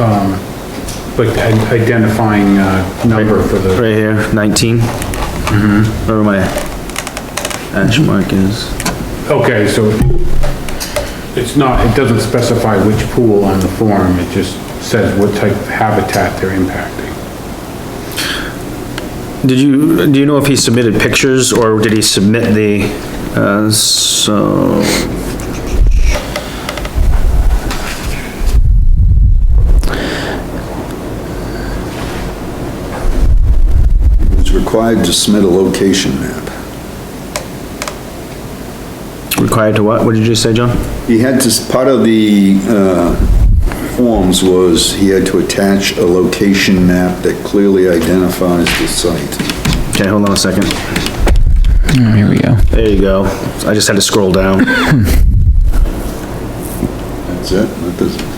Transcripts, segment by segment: um, like i- identifying, uh, number for the, Right here, 19? Mm-hmm. Where my hash mark is. okay, so it's not, it doesn't specify which pool on the form, it just says what type of habitat they're impacting. Did you, do you know if he submitted pictures or did he submit the, uh, so? It's required to submit a location map. Required to what? What did you just say, John? He had to, part of the, uh, forms was he had to attach a location map that clearly identifies the site. Okay, hold on a second. Oh, Here we go. There you go. I just had to scroll down. That's it? That doesn't-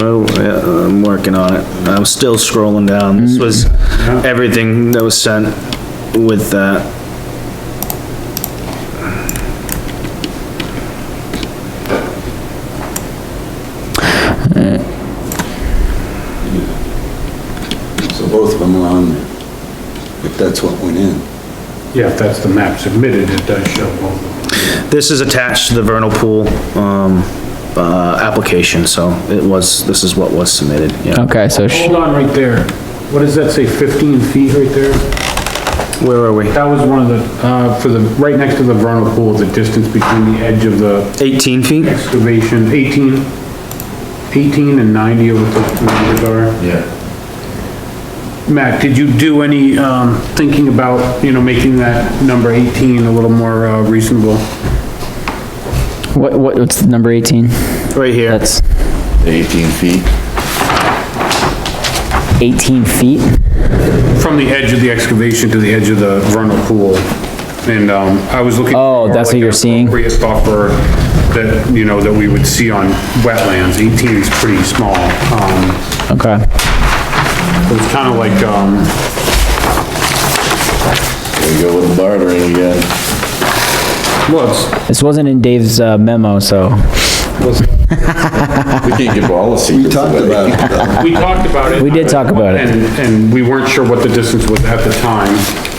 Well, yeah, I'm working on it. I'm still scrolling down. This was Mm-hmm. everything that was sent with that. So both of them are on there. If that's what went in. Yeah, if that's the map submitted, it does show both of them. This is attached to the vernal pool, um, uh, application, so it was, this is what was submitted, yeah. Okay, so, sh- Hold on right there. What does that say, 15 feet right there? Where are we? That was one of the, uh, for the, right next to the vernal pool, the distance between the edge of the Eighteen feet? excavation, 18, 18 and 90 are what the numbers are. Yeah. Matt, did you do any, um, thinking about, you know, making that number 18 a little more uh, reasonable? what, what, what's the number eighteen? Right here. That's Eighteen feet. eighteen feet? From the edge of the excavation to the edge of the vernal pool. And, um, I was looking. Oh, that's what for, like, you're an seeing? Appropriate buffer that, you know, that we would see on wetlands. 18 is pretty small. Um, Okay, it was kinda like, um, There you go with bartering again. well, it's, this wasn't in Dave's uh, memo, so, We can't give all the We secrets talked away. about it, though. we talked about it. We did talk about it. And, and we weren't sure what the distance was at the time,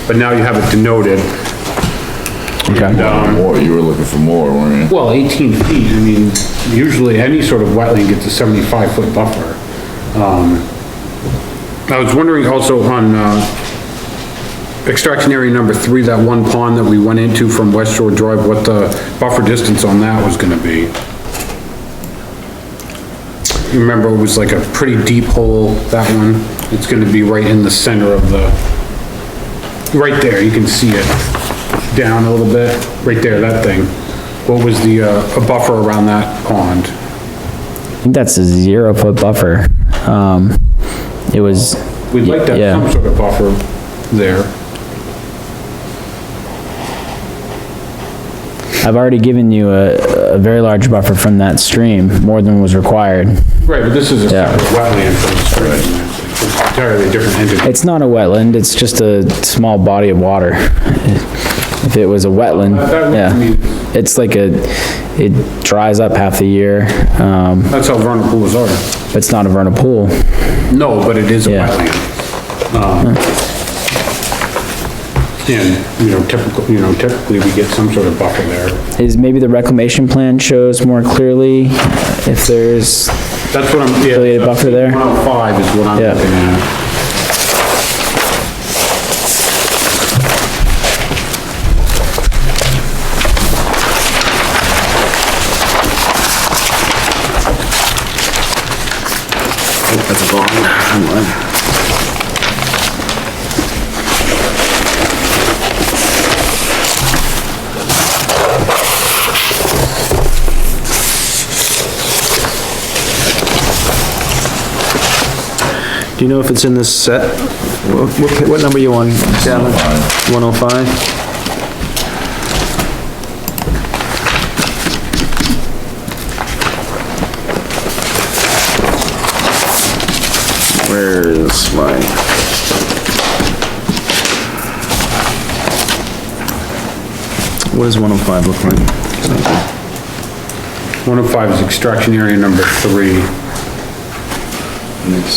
but now you have it denoted. um, okay. More, you were looking for more, weren't you? Well, 18 feet, I mean, usually any sort of wetland gets a 75-foot buffer. Um, I was wondering also on uh, extraction area number three, that one pond that we went into from West Shore Drive, what the buffer distance on that was gonna be. You Remember, it was like a pretty deep hole, that one. It's gonna be right in the center of the, right there, you can see it down a little bit, right there, that thing. What was the, uh, a buffer around that pond? I think that's a zero foot buffer. Um, it was, We'd like to Yeah. have some sort of buffer there. I've already given you a, a very large buffer from that stream, more than was required. Right, but this is a Yeah. separate wetland from the stream. It's an Entirely different entity. It's not a wetland, it's just a small body of water. If it was a wetland, That- that would- I yeah, mean, it's like a, it dries up half the year, um, That's how vernal pools are. but it's not a vernal pool. No, but it is a Yeah. wetland. Um, And, you know, typical, you know, typically we get some sort of buffer there. Is maybe the reclamation plan shows more clearly if there's, That's what I'm, yeah. Affiliated buffer there? 105 is what I'm Yeah. looking at. That's a long timeline. Do you know if it's in this set? What, what- what number you on? One oh five? Where is my? What does one oh five look like? 105 is extraction area number three. next